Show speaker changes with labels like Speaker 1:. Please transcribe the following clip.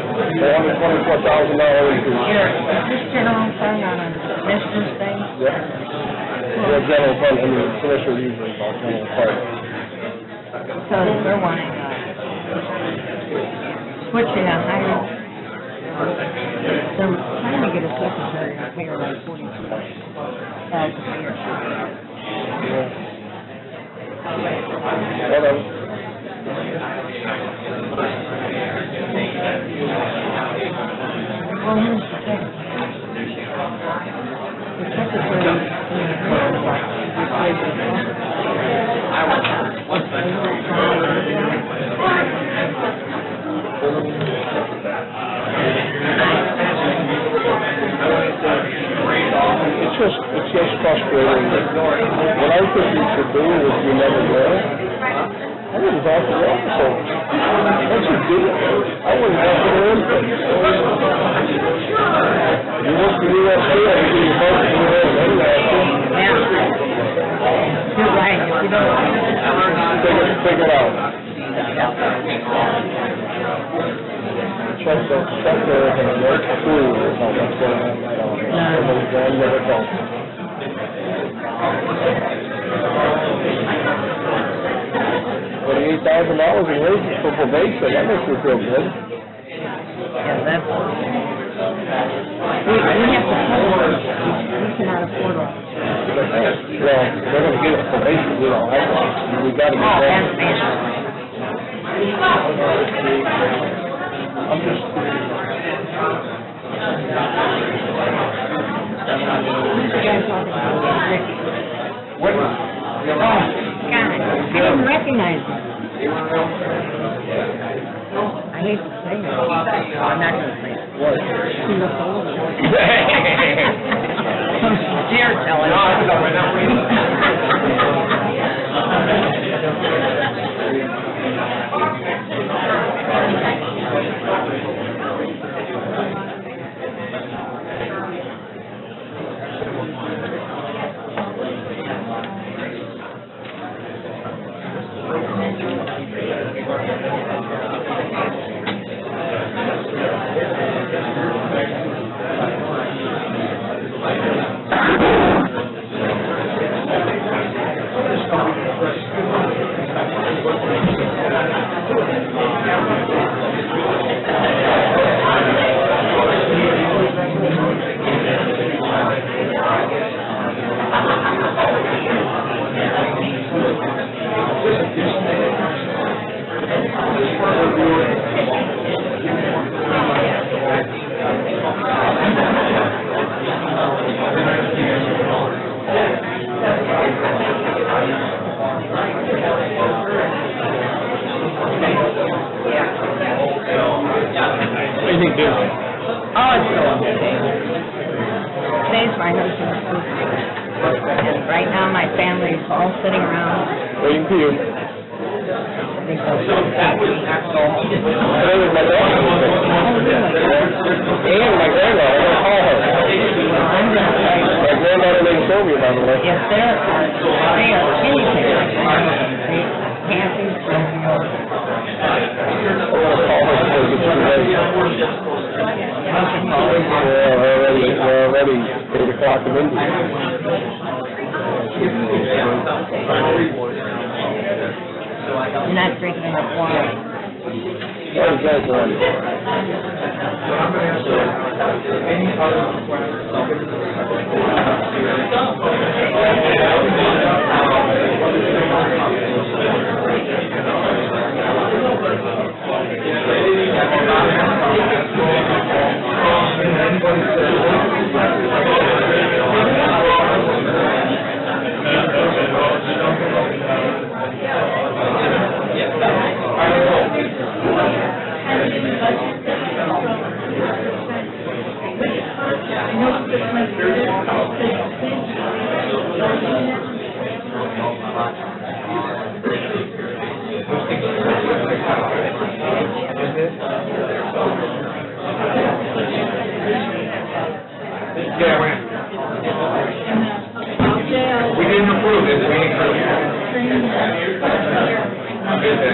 Speaker 1: hundred twenty-four thousand dollar increase.
Speaker 2: Your, this general fund on a commissioner's thing,
Speaker 1: Yep. The general fund, I mean, commissioner usually about general fund.
Speaker 2: so they're wanting, uh, switching a higher, they're trying to get a secretary to pay her like forty-two thousand a year.
Speaker 1: Whatever.
Speaker 2: Well, here's the thing. The secretary, you know, like, replaces
Speaker 1: It's just, it's just frustrating. What I think you should do is you never know. I wouldn't talk to the officer. Once you do it, I wouldn't talk to them. You work for USC, I think you vote for USC, I'm not sure.
Speaker 2: You're right, if you don't.
Speaker 1: Take it, take it out. Check the, check the, the work crew or something, that's what I'm, I don't know. Somebody's going to work on. Forty-eight thousand dollars in wages for probation, that makes me feel good.
Speaker 2: Yeah, that's. We, we have to pay for it. We cannot afford it.
Speaker 1: But, hey, Well, they're gonna get us probation, we don't have one, we gotta get
Speaker 2: Oh,
Speaker 1: that.
Speaker 2: and pay.
Speaker 1: I'm just.
Speaker 2: Who's the guy talking about? Rick.
Speaker 1: What?
Speaker 2: God, I didn't recognize him. I hate to say it. I'm not gonna say it.
Speaker 1: What?
Speaker 2: He looks old. Some sincere telling.
Speaker 1: do you think, Dale?
Speaker 2: Oh, it's so Today's my husband's birthday. And right now, my family's all sitting around.
Speaker 1: Waiting for you. Today was my daughter's birthday. And my granddaughter, I gotta call her. My granddaughter named Sylvia, by the way.
Speaker 2: If they're, they are anything like Marvin, they can't be so.
Speaker 1: I'm gonna call her because it's too late. We're already, we're already eight o'clock in India.
Speaker 2: You're not drinking enough water.
Speaker 1: What is that one?